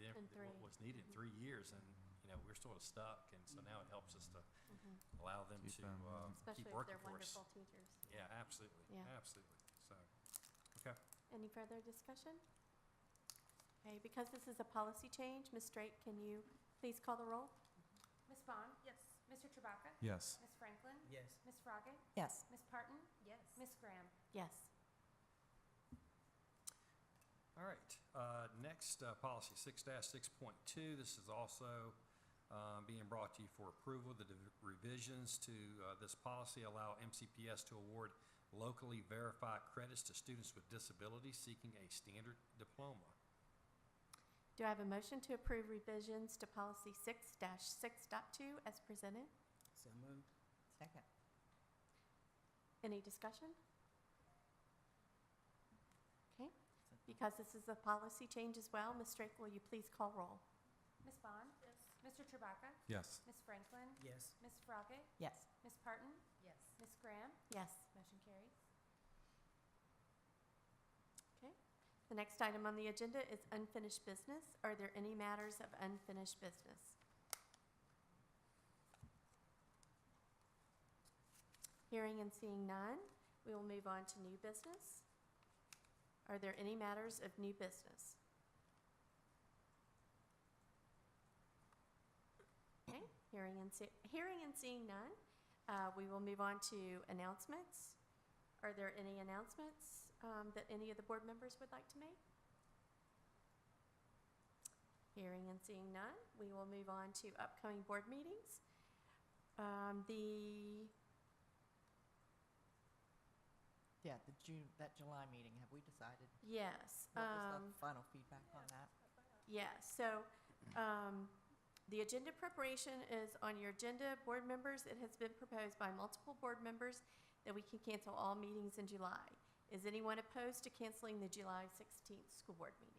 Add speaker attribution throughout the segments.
Speaker 1: than what
Speaker 2: Three.
Speaker 1: was needed in three years, and, you know, we're sort of stuck, and so now it helps us to
Speaker 2: Mhm.
Speaker 1: allow them
Speaker 3: Keep
Speaker 1: to,
Speaker 3: them, yeah.
Speaker 1: uh,
Speaker 2: Mm-hmm. Especially
Speaker 1: keep
Speaker 2: if
Speaker 1: working
Speaker 2: they're
Speaker 1: for us.
Speaker 2: wonderful teachers.
Speaker 1: Yeah, absolutely,
Speaker 2: Yeah.
Speaker 1: absolutely, so, okay.
Speaker 2: Any further discussion? Okay, because this is a policy change, Ms. Straight, can you please call the roll?
Speaker 4: Ms. Bond?
Speaker 5: Yes.
Speaker 4: Mr. Chewbacca?
Speaker 3: Yes.
Speaker 4: Ms. Franklin?
Speaker 5: Yes.
Speaker 4: Ms. Froggatt?
Speaker 6: Yes.
Speaker 4: Ms. Parton?
Speaker 5: Yes.
Speaker 4: Ms. Graham?
Speaker 2: Yes.
Speaker 1: All right, uh, next, uh, policy six six point two, this is also, um, being brought to you for approval. The div- revisions to, uh, this policy allow MCPS to award locally verified credits to students with disabilities seeking a standard diploma.
Speaker 2: Do I have a motion to approve revisions to policy six dash six dot two as presented?
Speaker 5: So moved.
Speaker 6: Second.
Speaker 2: Any discussion? Okay, because this is a policy change as well, Ms. Straight, will you please call roll?
Speaker 4: Ms. Bond?
Speaker 5: Yes.
Speaker 4: Mr. Chewbacca?
Speaker 3: Yes.
Speaker 4: Ms. Franklin?
Speaker 5: Yes.
Speaker 4: Ms. Froggatt?
Speaker 6: Yes.
Speaker 4: Ms. Parton?
Speaker 5: Yes.
Speaker 4: Ms. Graham?
Speaker 2: Yes.
Speaker 4: Motion carries.
Speaker 2: Okay. The next item on the agenda is unfinished business. Are there any matters of unfinished business? Hearing and seeing none, we will move on to new business. Are there any matters of new business? Okay, hearing and see, hearing and seeing none, uh, we will move on to announcements. Are there any announcements um, that any of the board members would like to make? Hearing and seeing none, we will move on to upcoming board meetings. Um, The,
Speaker 6: Yeah, the June, that July meeting, have we decided?
Speaker 2: yes.
Speaker 6: What was
Speaker 2: um,
Speaker 6: the final feedback on that?
Speaker 2: Yeah, so um, the agenda preparation is on your agenda, board members. It has been proposed by multiple board members that we can cancel all meetings in July. Is anyone opposed to canceling the July 16th school board meeting?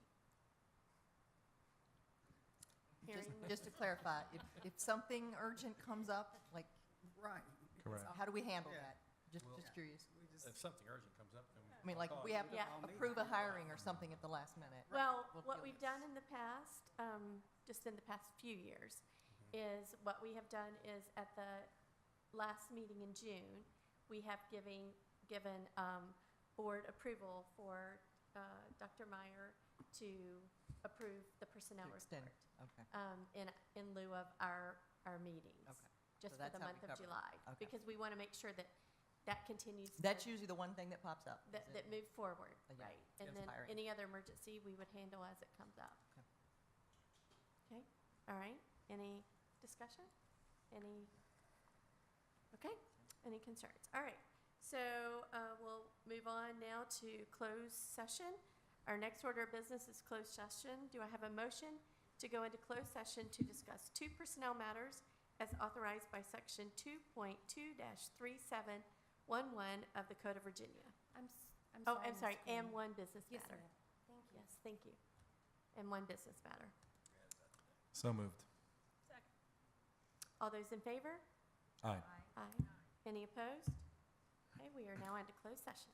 Speaker 6: Just-
Speaker 2: Hearing-
Speaker 6: Just to clarify, if, if something urgent comes up, like,
Speaker 5: Right.
Speaker 3: Correct.
Speaker 6: how do we handle
Speaker 5: Yeah.
Speaker 6: that? Just,
Speaker 1: Well-
Speaker 6: just curious.
Speaker 5: We
Speaker 1: If
Speaker 5: just,
Speaker 1: something urgent comes up, then.
Speaker 6: I mean, like, if we have
Speaker 2: Yeah.
Speaker 6: to approve a hiring or something at the last minute.
Speaker 2: Well,
Speaker 6: We'll
Speaker 2: what
Speaker 6: do
Speaker 2: we've
Speaker 6: it.
Speaker 2: done in the past, um, just in the past few years,
Speaker 6: Mm-hmm.
Speaker 2: is what we have done is at the last meeting in June, we have giving, given, um, board approval for, uh, Dr. Meyer to approve the personnel
Speaker 6: To extend,
Speaker 2: report,
Speaker 6: okay.
Speaker 2: um, in, in lieu of our, our meetings.
Speaker 6: Okay.
Speaker 2: Just
Speaker 6: So
Speaker 2: for
Speaker 6: that's
Speaker 2: the
Speaker 6: how we
Speaker 2: month of
Speaker 6: cover it.
Speaker 2: July.
Speaker 6: Okay.
Speaker 2: Because we want to make sure that that continues. to-
Speaker 6: That's usually the one thing that pops up. is
Speaker 2: That,
Speaker 6: it-
Speaker 2: that move forward,
Speaker 6: Uh, yeah.
Speaker 2: right? And
Speaker 6: Yes.
Speaker 2: then
Speaker 6: Hiring.
Speaker 2: any other emergency, we would handle as it comes up.
Speaker 6: Okay.
Speaker 2: Okay, all right, any discussion? Any, okay, any concerns? All right, so uh, we'll move on now to closed session. Our next order of business is closed session. Do I have a motion to go into closed session to discuss two personnel matters as authorized by Section 2.2-3711 of the Code of Virginia?
Speaker 4: I'm, s- I'm
Speaker 2: Oh,
Speaker 4: sorry.
Speaker 2: I'm
Speaker 4: Ms.
Speaker 2: sorry, and
Speaker 4: Graham.
Speaker 2: one business
Speaker 4: Yes,
Speaker 2: matter.
Speaker 4: ma'am. Thank you.
Speaker 2: Yes, thank you. And one business matter.
Speaker 3: So moved.
Speaker 5: Second.
Speaker 2: All those in favor?
Speaker 3: Aye.
Speaker 2: Aye. Any opposed? Okay, we are now into closed session.